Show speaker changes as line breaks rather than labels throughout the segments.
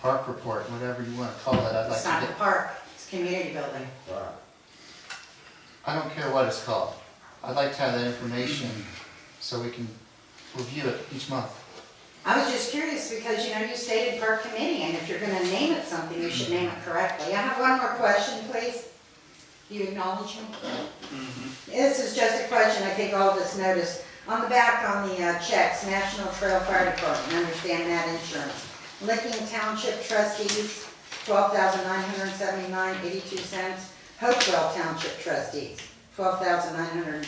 park report, whatever you wanna call it, I'd like
It's not
to
the
get,
park, it's community building.
Right.
I don't care what it's called. I'd like to have that information so we can review it each month.
I was just curious because, you know, you stated park committee, and if you're gonna name it something, you should name it correctly. I have one more question, please. Do you acknowledge me? This is just a question, I think all of us noticed. On the back, on the uh, checks, National Trail Fire Department, understand that insurance. Licking Township trustees, twelve thousand nine hundred seventy-nine eighty-two cents. Hopewell Township trustees, twelve thousand nine hundred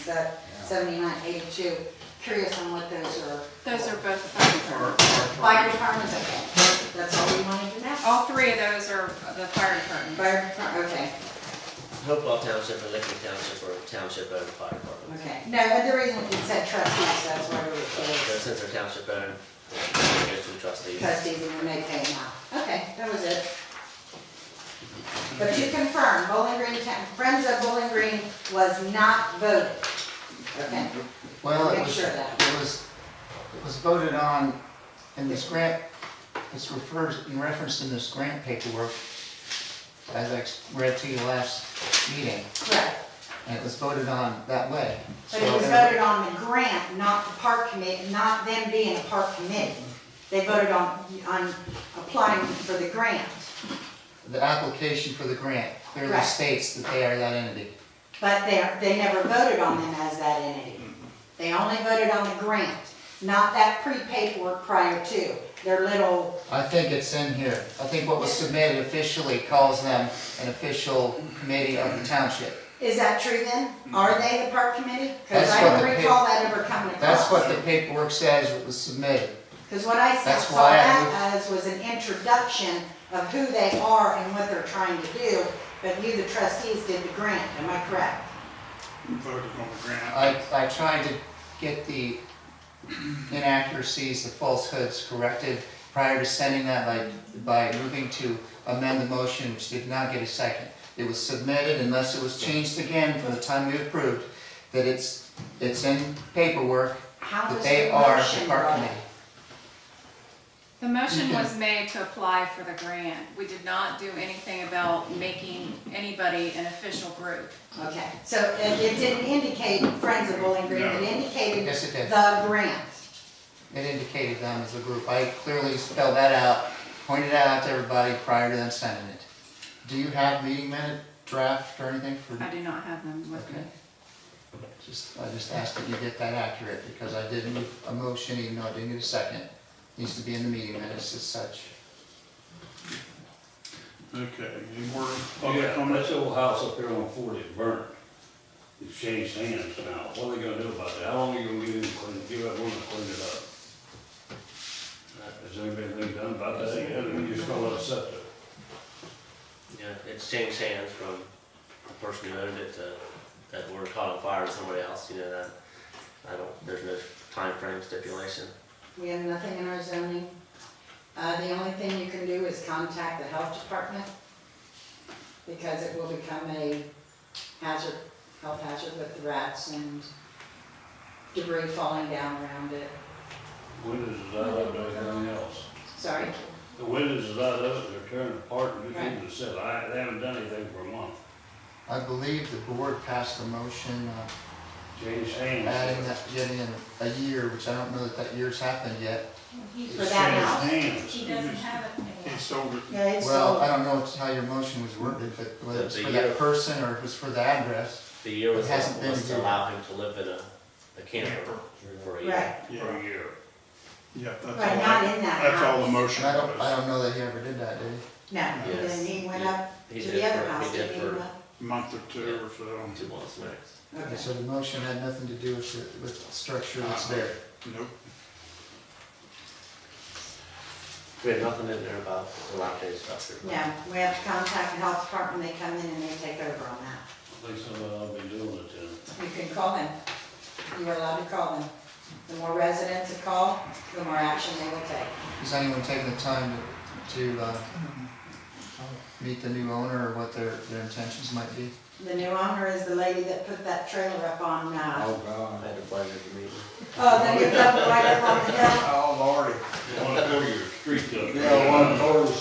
seventy-nine eighty-two. Curious on what those are.
Those are both fire department.
Fire department, okay, Oh. that's all we wanted to know.
All three of those are the fire department.
Fire department, okay,
Hopewell Township and Licking Township or township owned fire departments.
okay. No, but the reason it said trustees, that's why we
So
were,
since they're township owned, it goes to the trustees.
trustees and we may pay now. Okay, that was it. But to confirm, Bowling Green, Town- Friends of Bowling Green was not voted. Okay,
Well, it
Make
was,
sure of that.
it was, it was voted on in this grant, it's referred, in reference in this grant paperwork, as I ex- read to you last meeting,
correct.
and it was voted on that way.
But it was
So-
voted on the grant, not the park committee, not them being a park committee. They voted on, on applying for the grant.
The application for the grant clearly
Right.
states that they are that entity.
But they, they never voted on them as that entity.
Mm-hmm.
They only voted on the grant, not that pre-paid work prior to, their little,
I think it's in here. I think what was submitted officially calls them an official committee of the township.
is that true then? Are they the park committee? Because
Mm-hmm. That's
I
what
don't
the pa-
recall that ever coming
That's what
across.
the paperwork says it was submitted.
Because what I saw
That's
saw
why I
that as was an introduction of who they are and what they're trying to do, but you, the trustees, did the grant, am I correct?
voted on the grant.
I, I tried to get the inaccuracies, the falsehoods corrected prior to sending that by, by moving to amend the motion, which did not get a second. It was submitted unless it was changed again from the time we approved, that it's, it's in paperwork,
How
that
was
they
the
are
motion
the park
brought?
committee.
The motion was made to apply for the grant. We did not do anything about making anybody an official group.
Okay, so it it didn't indicate Friends of Bowling Green, it
No.
indicated
Yes, it did.
the grant.
It indicated them as a group. I clearly spelled that out, pointed that out to everybody prior to them sending it. Do you have meeting minute draft or anything for?
I do not have them with me.
Okay. Just, I just asked that you get that accurate, because I did move a motion, even though I didn't get a second. Needs to be in the meeting minutes as such.
Okay, any more
Oh,
public
Oh, Yeah,
comments?
that old house up there on Forty is burnt. It's changed hands now. What are they gonna do about that? How long are you gonna give them, clean- give everyone to clean it up? Has anybody been done about that yet? Or you just gonna let it sit there?
Yeah, it's changed hands from the person who owned it to that were caught on fire to somebody else, you know, that, I don't, there's no time frame stipulation.
We have nothing in our zoning. Uh, the only thing you can do is contact the health department because it will become a hazard, health hazard with rats and debris falling down around it.
Windows is out of it, everything else.
Sorry,
The windows is out of it, they're tearing apart and
Right.
people just said, I, they haven't done anything for a month.
I believe the board passed a motion uh,
Changed hands.
adding that, getting in a year, which I don't know that that year's happened yet.
for that house.
It's changed hands.
He doesn't have it
He sold it.
Yeah, it's
Well, I
sold.
don't know how your motion was worded, but whether it's
The
for
year.
that person or if it's for the address.
The year was,
It hasn't been
was
a
to
year.
allow him to live in a, a camper for a year.
Right,
For a year.
Yeah, that's all.
right, not in that house.
That's all the motion
And I don't, I
was,
don't know that he ever did that, did he?
No, and then he went up
He
to
did
the other
for-
house,
He did
didn't he?
for
a month or two or so.
two months max.
Okay,
Okay.
So the motion had nothing to do with, the- with the structure that's there.
Nope.
We had nothing in there about the dilapidated structure. but-
No, we have to contact the health department, they come in and they take over on that.
At least somebody will be doing it then.
You can call them, you are allowed to call them. The more residents that call, the more action they will take.
Is anyone taking the time to, to, uh, meet the new owner or what their, their intentions might be?
The new owner is the lady that put that trailer up on, uh,
Oh,
I
God.
had the pleasure of meeting.
oh, then you up right up on the hill.
Oh, Lordy.
You wanna go to your street though.
Yeah, one quarter